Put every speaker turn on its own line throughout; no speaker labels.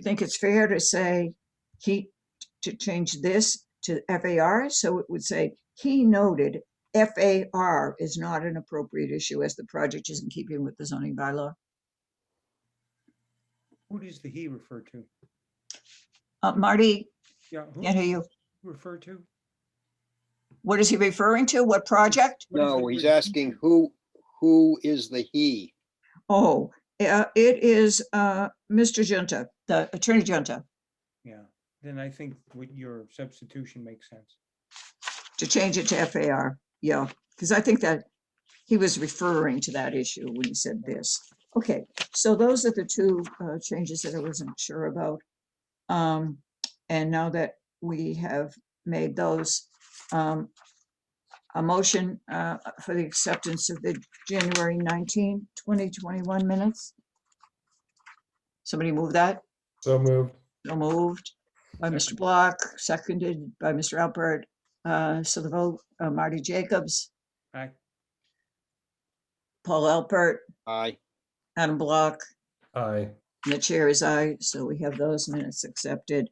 you think it's fair to say he, to change this to FAR? So it would say, he noted FAR is not an appropriate issue as the project is in keeping with the zoning bylaw.
Who does the he refer to?
Uh, Marty,
Yeah, who
can't hear you.
refer to?
What is he referring to? What project?
What is the
No, he's
word he?
asking who, who is the he?
Oh, uh, it is, uh, Mr. Junta, the Attorney Junta,
Yeah, then I think what your substitution makes sense.
to change it to FAR. Yeah, because I think that he was referring to that issue when he said this. Okay, so those are the two, uh, changes that I wasn't sure about. Um, and now that we have made those, um, a motion, uh, for the acceptance of the January 19, 2021 minutes. Somebody move that?
So moved.
So moved by Mr.
Second.
Block, seconded by Mr. Alpert. Uh, So the vote, uh, Marty Jacobs,
Aye.
Paul Alpert,
I,
Adam Block,
Aye.
and the chair is aye. So we have those minutes accepted.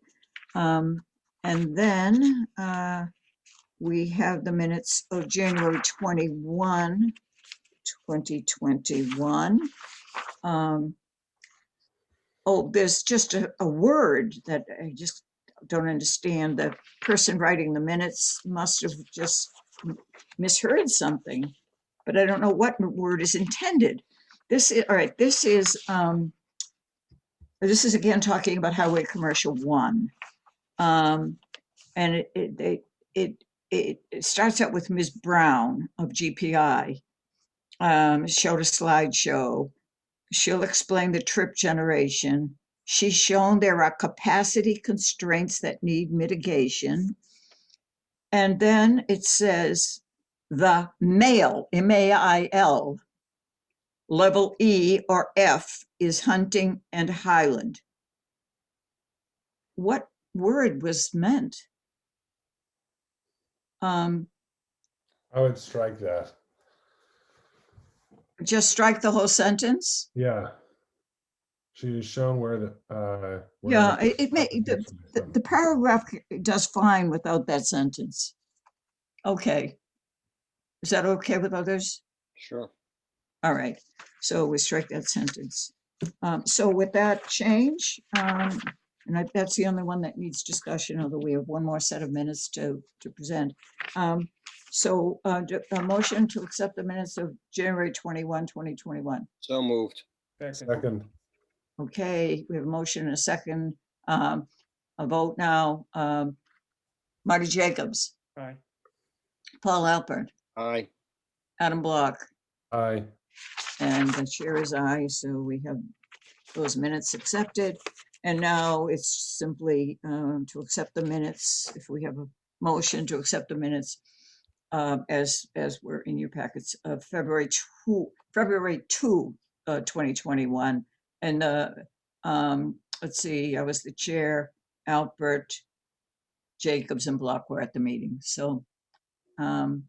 Um, And then uh, we have the minutes of January 21, 2021. Um, Oh, there's just a, a word that I just don't understand. The person writing the minutes must have just m- misheard something. But I don't know what m- word is intended. This is, all right, this is, um, this is again talking about Highway Commercial One. Um, and it, it, they, it, it, it starts out with Ms. Brown of GPI. Um, showed a slideshow. She'll explain the trip generation. She's shown there are capacity constraints that need mitigation. And then it says the male, M A I L, level E or F is hunting and highland. What word was meant? Um,
I would strike that.
just strike the whole sentence?
Yeah. She is shown where the, uh. where
Yeah,
the
it- it may- the-
application is
The,
from.
the paragraph c- does fine without that sentence. Okay. Is that okay with others?
sure.
All right, so we strike that sentence. Um, so with that change, um, and I, that's the only one that needs discussion, although we have one more set of minutes to, to present. Um, so, uh, d- a motion to accept the minutes of January 21, 2021.
So moved.
Second,
Second,
Okay, we have a motion and a second, um, a vote now. Um, Marty Jacobs,
aye,
Paul Alpert,
I,
Adam Block,
aye.
and the chair is aye, so we have those minutes accepted. And now it's simply, um, to accept the minutes, if we have a motion to accept the minutes, um, as, as were in your packets of February two, February two, uh, twenty twenty-one. And, uh, um, let's see, I was the chair, Albert, Jacobs and Block were at the meeting, so, um,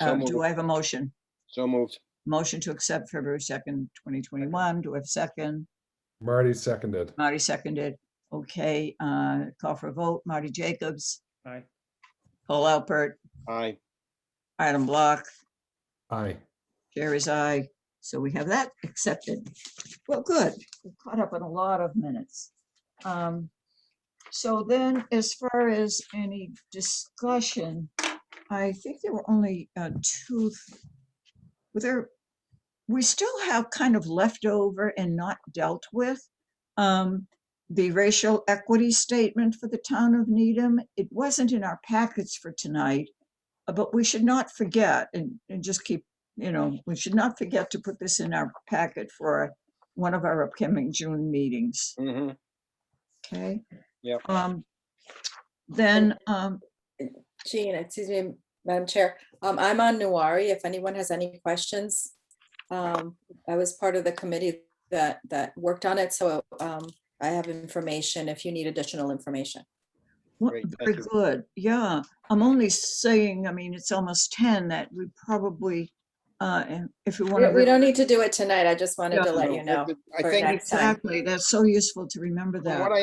So
uh, do
moved.
I have a motion?
so moved.
Motion to accept February second, twenty twenty-one. Do I have a second?
Marty seconded.
Marty seconded. Okay, uh, call for a vote. Marty Jacobs,
aye,
Paul Alpert,
I,
Adam Block,
Aye.
Jerry's aye. So we have that accepted. Well, good. We've caught up on a lot of minutes. Um, so then as far as any discussion, I think there were only, uh, two. th- were There, we still have kind of leftover and not dealt with. Um, the racial equity statement for the town of Needham. It wasn't in our packets for tonight. uh, But we should not forget and, and just keep you know, we should not forget to put this in our packet for one of our upcoming June meetings,
hmm
okay?
Yep.
Um, then, um,
Jean, excuse me, Madam Chair, um, I'm on Nuwari. If anyone has any questions. Um, I was part of the committee that, that worked on it, so, um, I have information if you need additional information.
wha-
Great, thank
very
you.
good, yeah. I'm only saying, I mean, it's almost ten that we probably, uh, and if we want
We
to.
we don't need to do it tonight. I just wanted
Yeah.
to let you know.
I
for
think
next time.
Exactly, that's so useful to remember
from
that.
what I